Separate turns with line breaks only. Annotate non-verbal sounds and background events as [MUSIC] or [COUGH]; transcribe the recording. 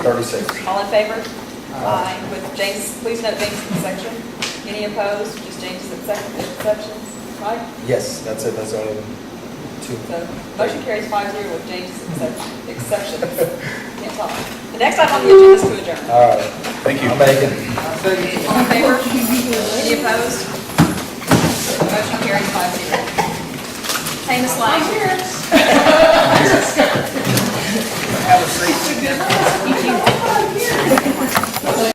36.
All in favor? Aye. With James, please note James is section. Any opposed? Just James is exception, exceptions, right?
Yes, that's it, that's only two.
So motion carries five zero with James is exception, exceptions. Can't talk. The next item on the agenda is to adjourn.
All right. Thank you. I'm making.
All in favor? Any opposed? Motion carries five zero. Famous line. [LAUGHS]
Have a seat.